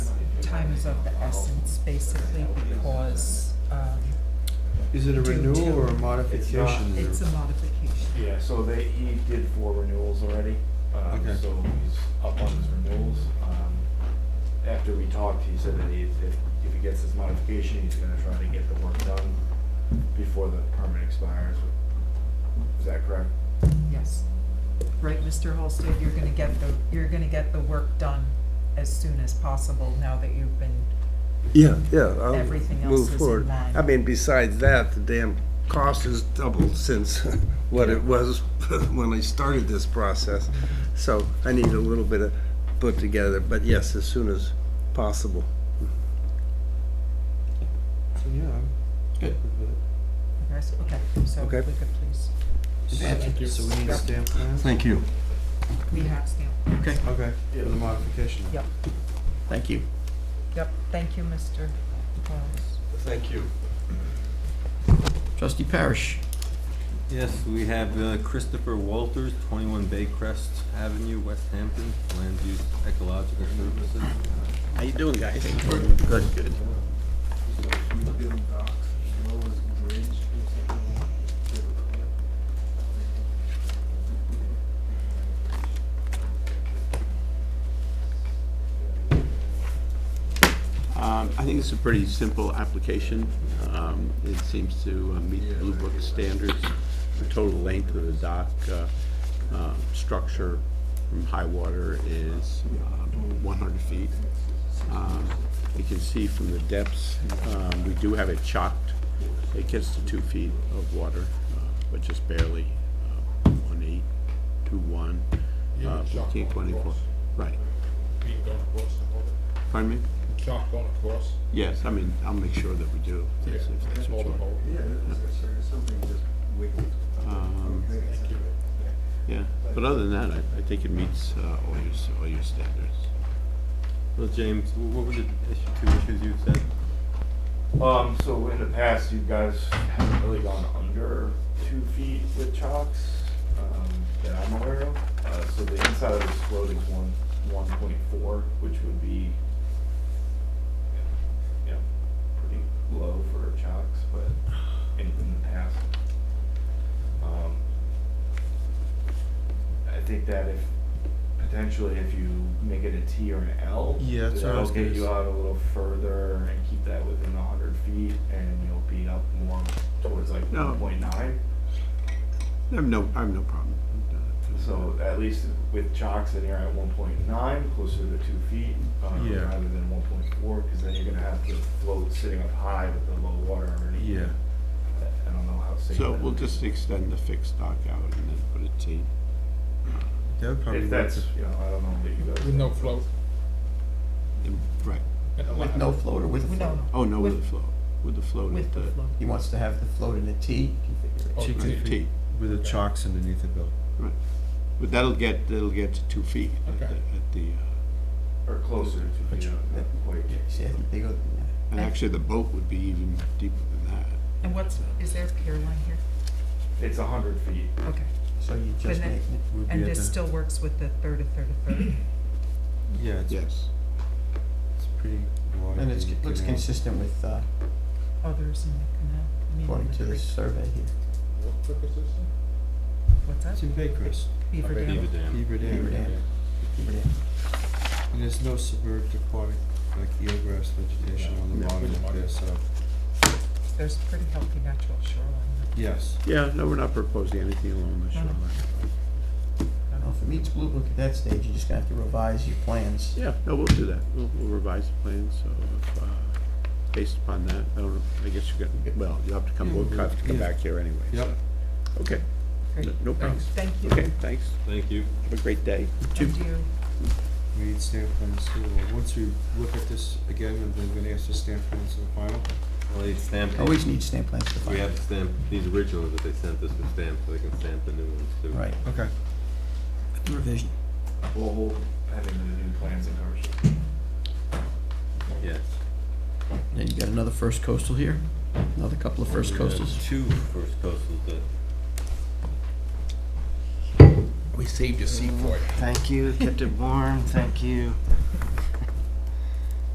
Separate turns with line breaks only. time is of the essence, basically, because, um,
Is it a
Due
renewal
to-
or a modification?
it's a modification.
Yeah, so they, he did four renewals already, um,
Okay.
so he's up on his renewals. Um, After we talked, he said that he, if, if he gets his modification, he's gonna try to get the work done before the permit expires. Is that correct?
Yes. Right, Mr. Holsted, you're gonna get the, you're gonna get the work done as soon as possible now that you've been,
Yeah, yeah, I'll
Everything else
move
is in
forward.
line.
I mean, besides that, the damn cost has doubled since what it was when I started this process.
Mm-hmm.
So I need a little bit of put together, but yes, as soon as possible.
So, Yeah. I'm
Good.
good with it.
yes, okay, so if we
Okay.
could please,
So we need a stamp plan?
Thank you.
we have stamp.
Okay,
Okay, for the modification.
Yep,
thank you.
yep, thank you, Mr. Wallace.
Thank you.
Trustee Parish.
Yes, we have uh, Christopher Walters, 21 Baycrest Avenue, West Hampton, Land Use Ecological Services.
How you doing, guys? Good, good. Um, I think it's a pretty simple application. Um, It seems to uh, meet the Blue Book standards, the total length of the dock, uh, uh, structure from high water is um, 100 feet. Um, You can see from the depths, um, we do have it chocked. It gets to two feet of water, uh, but just barely, uh, one eight, two one, uh, fourteen twenty-four. Right,
Being gone across the border.
pardon me?
Chalk gone across.
Yes, I mean, I'll make sure that we do, if if that's what you want.
Border.
Yeah, there's something just wiggled.
Um, Yeah, but other than that, I, I think it meets uh, all your, s- all your standards.
Well, James, wh- what were the issue- two issues you said?
Um, so in the past, you guys haven't really gone under two feet with chocks, um, that I'm aware of. Uh, so the inside of this float is one, one point four, which would be, you know, pretty low for chocks, but in, in the past. Um, I think that if, potentially if you make it a T or an L.
Yeah, that's what I was
That'll get
gonna
you
say.
out a little further and keep that within a hundred feet and you'll be up more towards like
No.
one point nine.
I have no, I have no problem.
So at least with chocks, then you're at one point nine, closer to two feet, um,
Yeah.
rather than one point four, cause then you're gonna have the float sitting up high with the low water underneath. I- I don't know how safe.
So
that
we'll
is.
just extend the fixed dock out and then put a T.
That would probably
If
work.
that's, you know, I don't know that you guys.
With no float.
in- Right,
With
No float or with
We
a
don't
float?
know.
oh, no, with
With-
the float, with the float
With
at
the
the,
flow.
He wants to have the float in a T configuration.
Chicken
right, T,
With the chocks underneath it, Bill.
right. But that'll get, that'll get to two feet at
Okay.
the, at the, uh,
Or closer to two feet, not quite.
See, I think bigger than that.
and actually the boat would be even deeper than that.
And what's, is there a pier line here?
It's a hundred feet.
Okay,
So you just
then-
make it.
Would be
and
at
this
the-
still works with the third, a third, a third?
Yeah, it's,
Yes.
it's pretty wide.
And it's,
you
looks
can, uh,
consistent with, uh,
Others in the canal? I mean,
according
the
to this
creek.
survey here.
What trick is this?
What's that?
It's in Baycrest,
Beaver
Beaver
Dam?
Beaver Dam.
Beaver Dam.
Beaver Dam. Beaver Dam.
And there's no suburban aquatic, like eelgrass vegetation on the
No.
bottom of there, so,
There's a pretty healthy natural shoreline.
yes.
Yeah, no, we're not proposing anything along the
No, no.
shoreline.
Well, uh, if it meets Blue Book at that stage, you're just gonna have to revise your plans.
Yeah, no, we'll do that. We'll, we'll revise the plan, so, if, uh, based upon that, I don't know, I guess you got, well, you'll have to come, we'll have to come
Mm-hmm. Yeah.
back here anyway. so.
Yep.
Okay,
Great.
no- no problem.
Thank you.
Okay, thanks.
Thank you.
Have a great day.
And you,
We need stamp plans too. Well, Once we look at this again, and then we're gonna ask for stamp plans in the final.
Well, they stamped,
Always need stamp plans to find.
we have stamped, these originals that they sent us were stamped, so they can stamp the new ones too.
Right,
Okay.
revision.
We'll hold pending the new plans and covers.
Yes.
And you got another First Coastal here? Another couple of
We have Two First Coastals that
We saved a seat for it.
Thank you, kept it warm, thank you.